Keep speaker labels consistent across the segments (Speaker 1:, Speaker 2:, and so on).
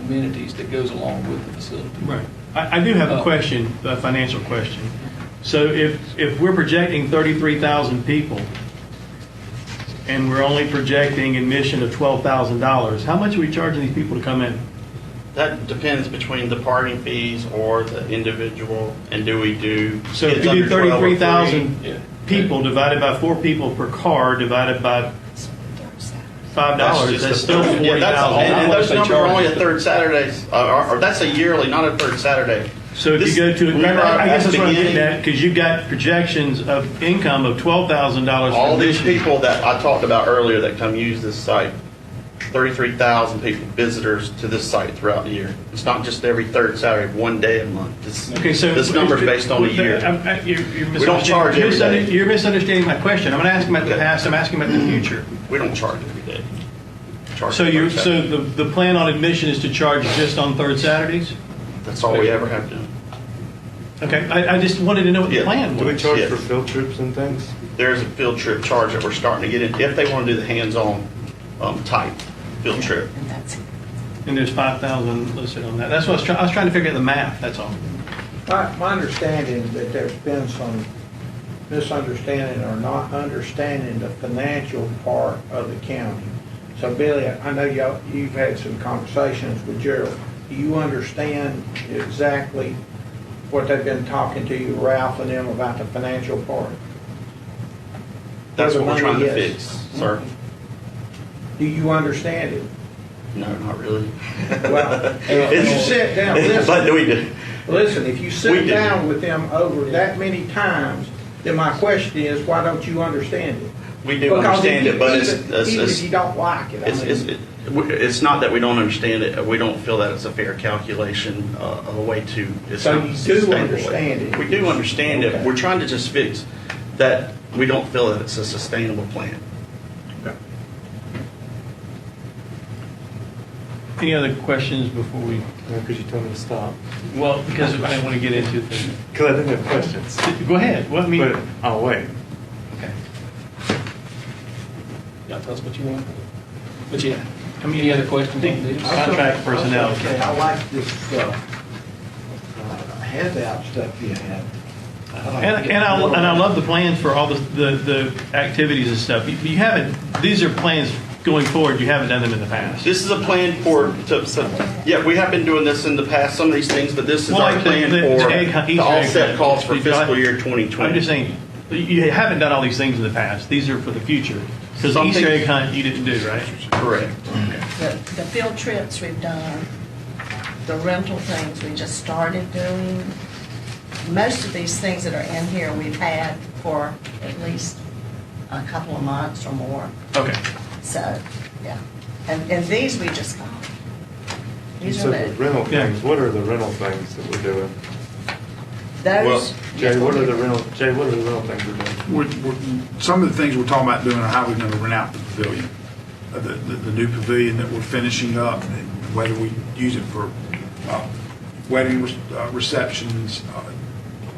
Speaker 1: amenities that goes along with the facility.
Speaker 2: Right. I, I do have
Speaker 3: Oh.
Speaker 2: a question, a financial question. So if, if we're projecting 33,000 people, and we're only projecting admission of $12,000, how much are we charging these people to come in?
Speaker 3: That depends between the parking fees or the individual, and do we do?
Speaker 2: So if
Speaker 3: kids
Speaker 2: you do
Speaker 3: under 12 or free?
Speaker 1: 3, yeah.
Speaker 2: 33,000 people divided by four people per car, divided by $5, dollars,
Speaker 3: just
Speaker 2: that's
Speaker 3: a-
Speaker 2: still
Speaker 3: yeah, that's- And and those
Speaker 2: 40,000.
Speaker 3: numbers are only at third Saturdays, uh, or, or that's a yearly, not a third Saturday.
Speaker 2: So if
Speaker 3: This-
Speaker 2: you go to,
Speaker 3: we were
Speaker 2: I guess that's what I'm getting
Speaker 3: beginning-
Speaker 2: at, because you've got projections of income of $12,000
Speaker 3: All
Speaker 2: for
Speaker 3: these
Speaker 2: this year.
Speaker 3: people that I talked about earlier that come use this site, 33,000 people, visitors to this site throughout the year. It's not just every third Saturday, one day a month. This-
Speaker 2: Okay, so
Speaker 3: This number's based on a year.
Speaker 2: I'm- I'm- You're, you're
Speaker 3: We don't charge every
Speaker 2: misunderstanding-
Speaker 3: day.
Speaker 2: You're misunderstanding my question. I'm not asking about the
Speaker 3: Okay.
Speaker 2: past. I'm asking about the future.
Speaker 3: We don't charge every day. Charge
Speaker 2: So
Speaker 3: every
Speaker 2: you,
Speaker 3: third
Speaker 2: so
Speaker 3: Saturday.
Speaker 2: the, the plan on admission is to charge just on third Saturdays?
Speaker 3: That's all we ever have done.
Speaker 2: Okay, I, I just wanted to know what the
Speaker 3: Yeah.
Speaker 2: plan
Speaker 4: Do we
Speaker 2: was.
Speaker 4: charge
Speaker 3: Yes.
Speaker 4: for field trips and things?
Speaker 3: There's a field trip charge that we're starting to get in, if they want to do the hands-on um, type field trip.
Speaker 2: And there's five thousand listed on that. That's what I was trying, I was trying to figure out the math, that's all.
Speaker 5: My, my understanding that there's been some misunderstanding or not understanding the financial part of the county. So Billy, I know y'all, you've had some conversations with Gerald. Do you understand exactly what they've been talking to you, Ralph and them, about the financial part?
Speaker 3: That's what we're
Speaker 5: Where the
Speaker 3: trying
Speaker 5: money
Speaker 3: to
Speaker 5: is.
Speaker 3: fix, sir.
Speaker 5: Do you understand it?
Speaker 3: No, not really.
Speaker 5: Well, if you sit down, listen.
Speaker 3: But we do.
Speaker 5: Listen, if you
Speaker 3: We
Speaker 5: sit
Speaker 3: do.
Speaker 5: down with them over that many times, then my question is, why don't you understand it?
Speaker 3: We do
Speaker 5: Because
Speaker 3: understand it, but it's-
Speaker 5: even-
Speaker 3: it's-
Speaker 5: Even
Speaker 3: it's-
Speaker 5: if you don't like it, I
Speaker 3: It's, it's,
Speaker 5: mean,
Speaker 3: it- we- it's not that we don't understand it, we don't feel that it's a fair calculation, uh, a way to. it's
Speaker 5: So
Speaker 3: not
Speaker 5: you do
Speaker 3: sustainable.
Speaker 5: understand it.
Speaker 3: We do understand
Speaker 5: Okay.
Speaker 3: it, we're trying to just fix that, we don't feel that it's a sustainable plan.
Speaker 2: Any other questions before we,
Speaker 4: Because you told me to stop.
Speaker 2: well, because I didn't want to get into things.
Speaker 4: Because I didn't have questions.
Speaker 2: Go ahead, what, I mean,
Speaker 4: But I'll wait.
Speaker 2: okay.
Speaker 1: Yeah, that's what you want. But yeah, any other questions on these?
Speaker 5: I still-
Speaker 2: contract personnel.
Speaker 5: I still say I like this, uh, uh, handout stuff you have. like
Speaker 2: And,
Speaker 5: it.
Speaker 2: and I, and I love the plans for all the, the, the activities and stuff. You- You haven't, these are plans going forward, you haven't done them in the past.
Speaker 3: This is a plan for, to, so- yeah, we have been doing this in the past, some of these things, but this is
Speaker 2: Well,
Speaker 3: our
Speaker 2: like the-
Speaker 3: plan
Speaker 2: the- the egg
Speaker 3: for
Speaker 2: hunt,
Speaker 3: the
Speaker 2: Easter egg
Speaker 3: offset
Speaker 2: hunt.
Speaker 3: costs for
Speaker 2: Did y'all-
Speaker 3: fiscal year 2020.
Speaker 2: I'm just saying, you haven't done all these things in the past. These are for the future. Because
Speaker 3: Some
Speaker 2: Easter
Speaker 3: things-
Speaker 2: egg hunt, you didn't do, right?
Speaker 3: Correct.
Speaker 6: The the field trips we've done, the rental things we just started doing. Most of these things that are in here, we've had for at least a couple of months or more.
Speaker 2: Okay.
Speaker 6: So, yeah. And, and these we just got. These
Speaker 4: So
Speaker 6: are
Speaker 4: the
Speaker 6: the,
Speaker 4: rental
Speaker 2: Yeah.
Speaker 4: things, what are the rental things that we're doing?
Speaker 6: those.
Speaker 4: Jay, what are the rental, Jay, what are the rental things we're doing?
Speaker 7: We're, we're, some of the things we're talking about doing are how we're going to rent out the pavilion, Uh, the, the, the new pavilion that we're finishing up, and whether we use it for uh, wedding re- uh, receptions, uh,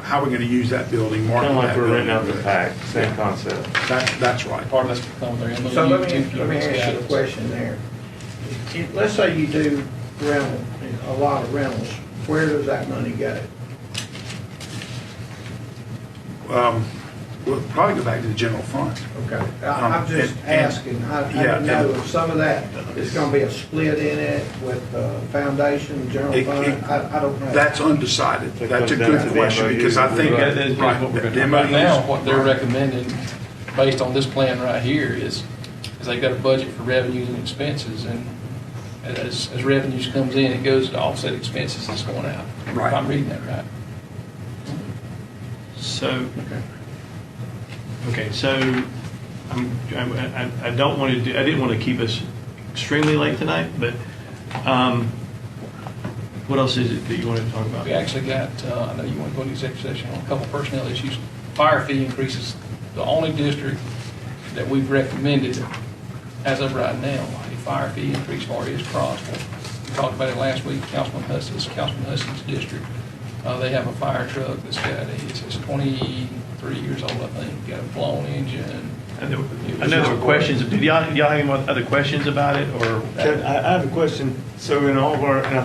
Speaker 7: how we're going to use that building.
Speaker 4: Kind
Speaker 7: market
Speaker 4: of like
Speaker 7: that
Speaker 4: we're
Speaker 7: building.
Speaker 4: renting out the pack, same concept.
Speaker 7: That, that's right.
Speaker 1: Part of that's on there.
Speaker 5: So let me, let me ask you a question there. If- Let's say you do rental, a lot of rentals, where does that money go?
Speaker 7: Um, We'll probably go back to the general fund.
Speaker 5: Okay, I- I'm just
Speaker 7: And- and-
Speaker 5: asking, I, I
Speaker 7: yeah,
Speaker 5: don't know
Speaker 7: and-
Speaker 5: if some of that is gonna be a split in it with the foundation, general
Speaker 7: It- it-
Speaker 5: fund, I, I don't know.
Speaker 7: That's undecided.
Speaker 4: That
Speaker 7: That's a
Speaker 4: comes down to
Speaker 7: good
Speaker 4: the
Speaker 7: question,
Speaker 4: MOU.
Speaker 7: because I think.
Speaker 2: That is what we're gonna-
Speaker 7: demo
Speaker 1: Right now,
Speaker 7: use-
Speaker 1: what they're recommending, based on this plan right here, is, is they've got a budget for revenues and expenses, and as, as revenues comes in, it goes to offset expenses that's going out.
Speaker 7: Right.
Speaker 1: If I'm reading that right.
Speaker 2: So, okay, so I'm, I, I- I don't want to do, I didn't want to keep us extremely late tonight, but, um, what else is it that you wanted to talk about?
Speaker 1: We actually got, uh, I know you want to go to executive session on a couple personnel issues. Fire fee increases, the only district that we've recommended as of right now, a fire fee increase for is Crossville. We talked about it last week, Councilman Hudson's, Councilman Hudson's district. Uh, They have a fire truck that's got, a- it's it's 23 years old, I think, got a blown engine.
Speaker 2: I know I know there were questions, did y'all, y'all have any more other questions about it, or?
Speaker 4: Can- I, I have a question. So in all of our, and I